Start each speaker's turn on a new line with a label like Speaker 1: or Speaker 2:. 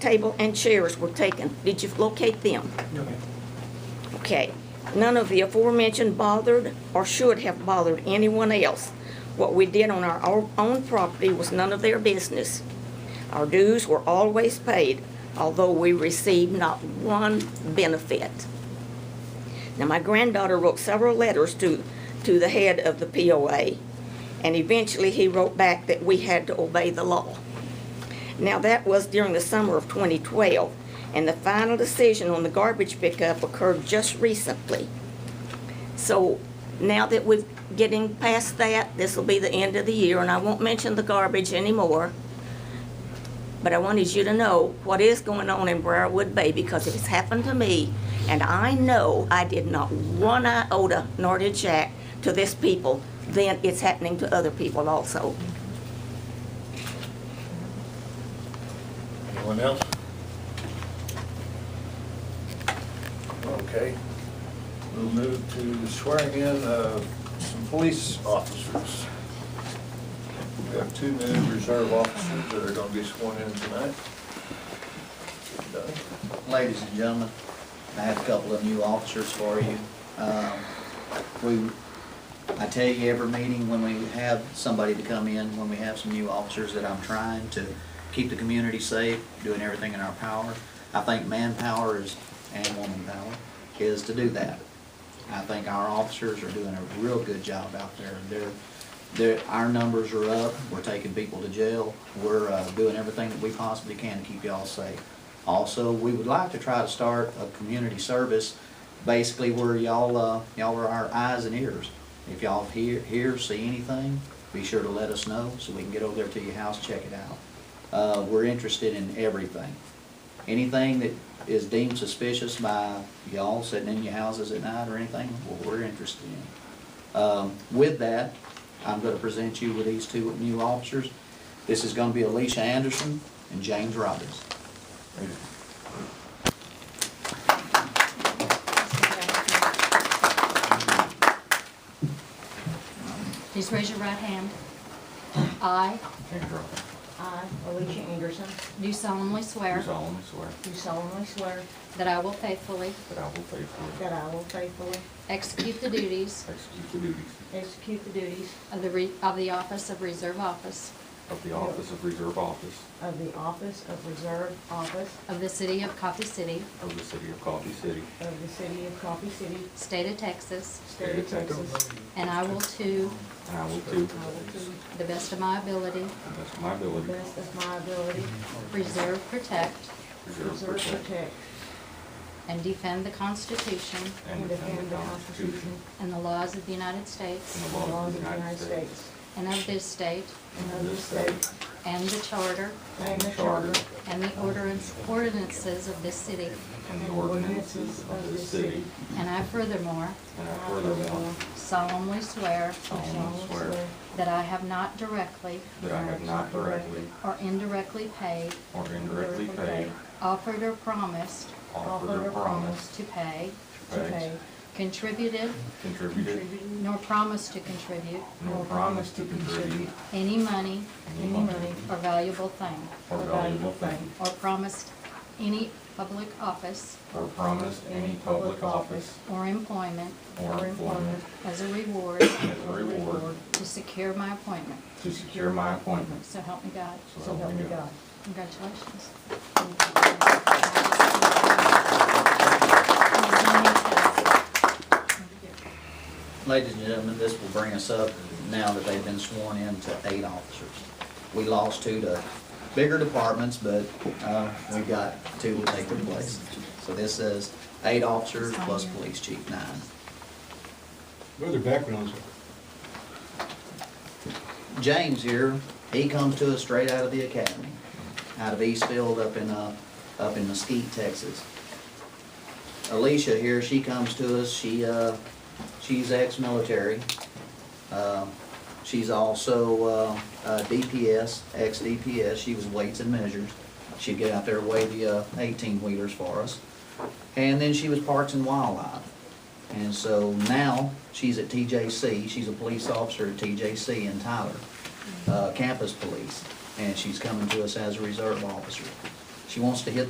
Speaker 1: table and chairs were taken. Did you locate them?
Speaker 2: No, ma'am.
Speaker 1: Okay. None of the aforementioned bothered or should have bothered anyone else. What we did on our o- own property was none of their business. Our dues were always paid, although we received not one benefit. Now, my granddaughter wrote several letters to, to the head of the POA, and eventually he wrote back that we had to obey the law. Now, that was during the summer of 2012, and the final decision on the garbage pickup occurred just recently. So now that we're getting past that, this will be the end of the year, and I won't mention the garbage anymore. But I wanted you to know what is going on in Briarwood Bay because it's happened to me, and I know I did not one iota nor did Jack to this people, then it's happening to other people also.
Speaker 3: Anyone else? Okay. We'll move to swearing in of some police officers. We have two new reserve officers that are going to be sworn in tonight.
Speaker 4: Ladies and gentlemen, I have a couple of new officers for you. Um, We, I tell you every meeting when we have somebody to come in, when we have some new officers, that I'm trying to keep the community safe, doing everything in our power. I think manpower is, and woman power, is to do that. I think our officers are doing a real good job out there. They're, they're, our numbers are up, we're taking people to jail, we're, uh, doing everything that we possibly can to keep y'all safe. Also, we would like to try to start a community service, basically where y'all, uh, y'all are our eyes and ears. If y'all hear, hear, see anything, be sure to let us know, so we can get over there to your house, check it out. Uh, we're interested in everything anything that is deemed suspicious by y'all sitting in your houses at night or anything, well, we're interested in. Um, with that, I'm gonna present you with these two new officers. This is gonna be Alicia Anderson and James Robbins.
Speaker 5: Please raise your right hand. I
Speaker 6: I, Alicia Anderson,
Speaker 5: do solemnly
Speaker 7: Do
Speaker 5: swear
Speaker 7: solemnly swear
Speaker 6: do solemnly swear
Speaker 5: that I will faithfully
Speaker 7: that I will faithfully
Speaker 6: that I will faithfully
Speaker 5: execute the duties
Speaker 7: execute the duties
Speaker 6: execute the duties
Speaker 5: of the, re- of the office of Reserve Office
Speaker 7: of the office of Reserve Office
Speaker 6: of the office of Reserve Office
Speaker 5: of the City of Coffee City,
Speaker 7: of the City of Coffee City,
Speaker 6: of the City of Coffee City,
Speaker 5: State of Texas,
Speaker 6: State of Texas.
Speaker 5: and I will to
Speaker 7: and I will do, to
Speaker 6: I will to the
Speaker 5: the best of my ability
Speaker 7: the best of my ability,
Speaker 6: best of my ability
Speaker 5: preserve, protect,
Speaker 7: preserve,
Speaker 6: preserve,
Speaker 7: protect,
Speaker 6: protect,
Speaker 5: and defend the Constitution
Speaker 6: and defend the Constitution
Speaker 5: and the laws of the United States
Speaker 7: and
Speaker 6: and the laws of the United States
Speaker 5: and of this state
Speaker 6: and of this state
Speaker 5: and the charter
Speaker 6: and the charter
Speaker 5: and the ordinance- ordinances of this city.
Speaker 7: and the ordinances of this city,
Speaker 5: And I furthermore
Speaker 7: and I furthermore
Speaker 5: solemnly swear
Speaker 7: solemnly swear
Speaker 5: that I have not directly
Speaker 7: that I have not directly
Speaker 5: or indirectly paid,
Speaker 7: or indirectly paid,
Speaker 5: offered or promised
Speaker 7: offered or promised,
Speaker 5: to pay,
Speaker 6: to pay,
Speaker 5: contributed,
Speaker 7: contributed,
Speaker 5: nor promised to contribute
Speaker 7: nor promised to contribute
Speaker 5: any money
Speaker 7: any money
Speaker 5: or valuable thing,
Speaker 7: or valuable thing,
Speaker 5: or promised any public office
Speaker 7: or promised any public office
Speaker 5: or employment
Speaker 7: or employment
Speaker 5: as a reward
Speaker 7: as a reward
Speaker 5: to secure my appointment.
Speaker 7: to secure my appointment.
Speaker 5: So help me God.
Speaker 6: so help me God.
Speaker 5: Congratulations.
Speaker 4: Ladies and gentlemen, this will bring us up, now that they've been sworn in, to eight officers. We lost two to bigger departments, but uh, we got two to take their place. So this is eight officers plus police chief, nine.
Speaker 8: What other backgrounds?
Speaker 4: James here, he comes to us straight out of the academy, out of Eastfield up in, uh, up in Mesquite, Texas. Alicia here, she comes to us, she, uh, she's ex-military. Uh, She's also, uh, uh, DPS, ex-DPS, she was weights and measures. She'd get out there, weigh the, uh, eighteen-wheelers for us. And then she was Parks and Wildlife. And so now, she's at TJC, she's a police officer at TJC in Tyler, uh, campus police, and she's coming to us as a reserve officer. She wants to hit